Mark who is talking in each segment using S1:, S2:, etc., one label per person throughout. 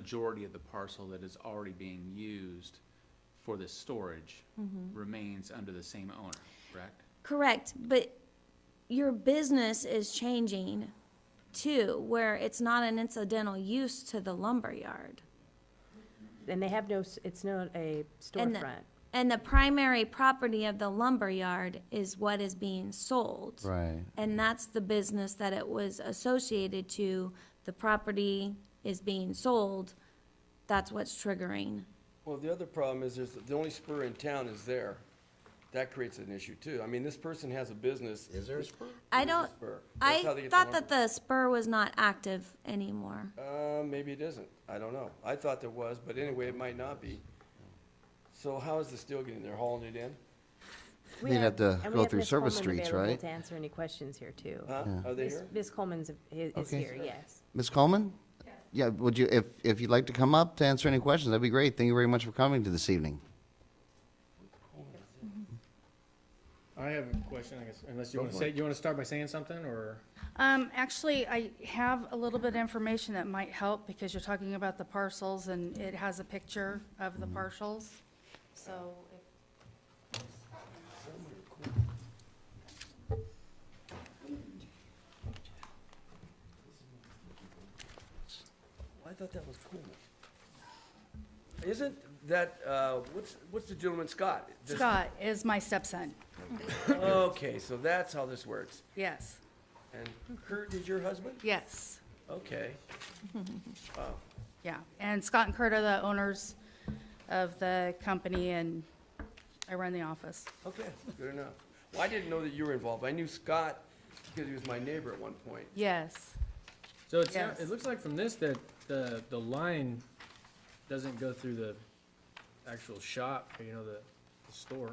S1: majority of the parcel that is already being used for this storage remains under the same owner, correct?
S2: Correct, but your business is changing too, where it's not an incidental use to the lumberyard.
S3: And they have no, s- it's not a
S2: And the-
S3: storefront.
S2: And the primary property of the lumberyard is what is being sold.
S4: Right.
S2: And that's the business that it was associated to, the property is being sold, that's what's triggering.
S5: Well, the other problem is, there's, the only spur in town is there. That creates an issue too. I mean, this person has a business.
S4: Is there a spur?
S2: I
S5: There's a
S2: don't,
S5: spur. That's how they
S2: I
S5: get the
S2: thought that the
S5: lumber.
S2: spur was not active anymore.
S5: Uh, maybe it isn't. I don't know. I thought there was, but anyway, it might not be. So how is the steel getting there? Hauling it in?
S3: We
S4: They'd
S3: have-
S4: have to
S3: and we
S4: go
S3: have
S4: through
S3: Ms.
S4: service
S3: Coleman
S4: streets,
S3: available
S4: right?
S3: To answer any questions here, too.
S5: Huh? Are they
S3: Ms.
S5: here?
S3: Ms. Coleman's, i- is
S4: Okay.
S3: here, yes.
S4: Ms. Coleman? Yeah, would you, if, if you'd like to come up to answer any questions, that'd be great. Thank you very much for coming to this evening.
S6: I have a question, I guess, unless you want to say, you want to start by saying something, or?
S7: Um, actually, I have a little bit of information that might help because you're talking about the parcels and it has a picture of the parcels. So if
S5: I thought that was cool. Isn't that, uh, what's, what's the gentleman, Scott? This-
S7: Scott is my stepson,
S5: Okay, so that's how this works.
S7: yes,
S5: And Kurt is your husband?
S7: yes,
S5: Okay. Wow.
S7: yeah. And Scott and Kurt are the owners of the company and I run the office.
S5: Okay, good enough. Well, I didn't know that you were involved. I knew Scott because he was my neighbor at one point.
S7: Yes,
S6: So it's,
S7: Yes.
S6: it looks like from this that the, the line doesn't go through the actual shop, you know, the, the store.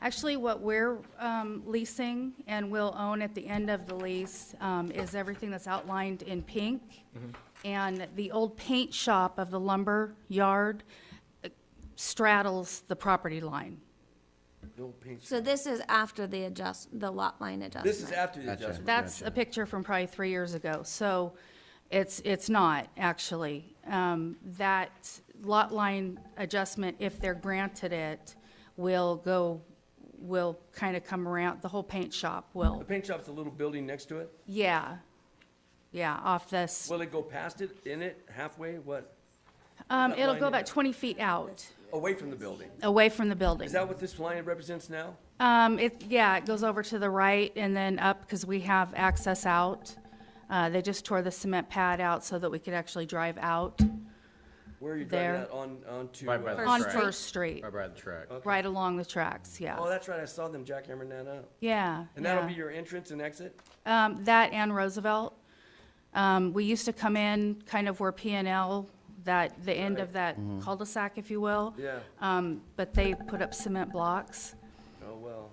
S7: actually, what we're, um, leasing and will own at the end of the lease, um, is everything that's outlined in pink. And the old paint shop of the lumber yard uh, straddles the property line.
S5: The old paint
S2: So this is after the adjust, the lot line adjustment.
S5: This is after the
S4: Gotcha.
S5: adjustment.
S7: That's a picture from probably three years ago, so it's, it's not, actually. Um, That lot line adjustment, if they're granted it, will go, will kind of come around, the whole paint shop
S5: The
S7: will,
S5: paint shop's a little building next to it.
S7: yeah, yeah, off this.
S5: Will it go past it, in it, halfway, what?
S7: Um,
S5: that
S7: It'll
S5: line
S7: go
S5: in?
S7: about 20 feet out,
S5: Away from the building.
S7: away from the building.
S5: Is that what this line represents now?
S7: Um, it, yeah, it goes over to the right and then up, because we have access out. Uh, They just tore the cement pad out so that we could actually drive out
S5: Where are you driving
S7: There.
S5: that on, onto?
S8: Right by
S5: uh,
S8: the-
S7: on
S8: Right.
S7: First Street.
S8: Right by the track.
S7: Right along the tracks,
S5: Oh,
S7: yeah.
S5: that's right, I saw them jackhammering that up.
S7: Yeah.
S5: And that'll be
S7: yeah.
S5: your entrance and exit?
S7: Um, that and Roosevelt. Um, we used to come in kind of where P and L, that, the end of that
S8: Mm-hmm.
S7: cul-de-sac, if you will.
S5: Yeah.
S7: Um, but they put up cement blocks.
S5: Oh, well.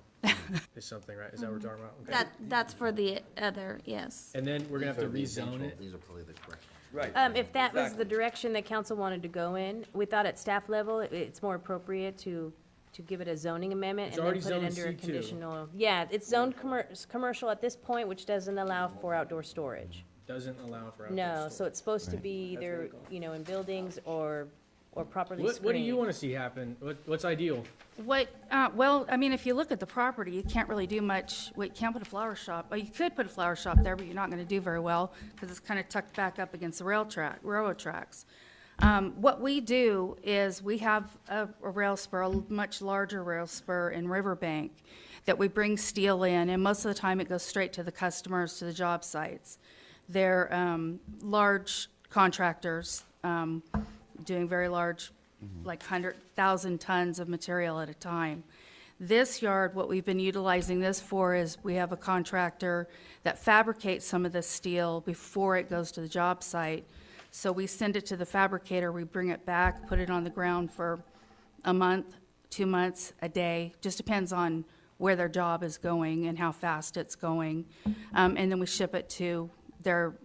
S6: Is something, right? Is that what we're talking about? Okay.
S2: That, that's for the other, yes.
S6: And then we're gonna have to rezone it.
S4: These are probably the correct ones.
S5: Right.
S7: Uh,
S3: Um, if that was
S5: Exactly.
S3: the direction that council wanted to go in, we thought at staff level, it- it's more appropriate to, to give it a zoning amendment
S6: It's
S3: and
S6: already
S3: then put it
S6: zoned
S3: under a
S6: C2.
S3: conditional. Yeah, it's zoned commer- s- commercial at this point, which doesn't allow for outdoor storage.
S6: Doesn't allow for outdoor
S3: No, so
S6: storage.
S3: it's supposed to be either, you know, in buildings or, or properly
S6: What,
S3: screened.
S6: what do you want to see happen? What, what's ideal?
S7: What, uh, well, I mean, if you look at the property, you can't really do much, well, you can't put a flower shop, well, you could put a flower shop there, but you're not gonna do very well, because it's kind of tucked back up against the rail track, railroad tracks. Um, what we do is, we have a, a rail spur, a much larger rail spur in Riverbank, that we bring steel in, and most of the time, it goes straight to the customers, to the job sites. They're, um, large contractors, um, doing very large, like 100,000 tons of material at a time. This yard, what we've been utilizing this for is we have a contractor that fabricates some of this steel before it goes to the job site. So we send it to the fabricator, we bring it back, put it on the ground for a month, two months, a day, just depends on where their job is going and how fast it's going. Um, and then we ship it to their,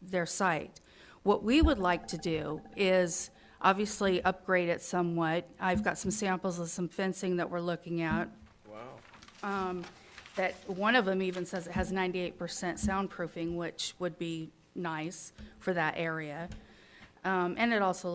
S7: their site. What we would like to do is obviously upgrade it somewhat. I've got some samples of some fencing that we're looking at. Wow. Um, that, one of them even says it has ninety-eight percent soundproofing, which would be nice for that area. Um, and it also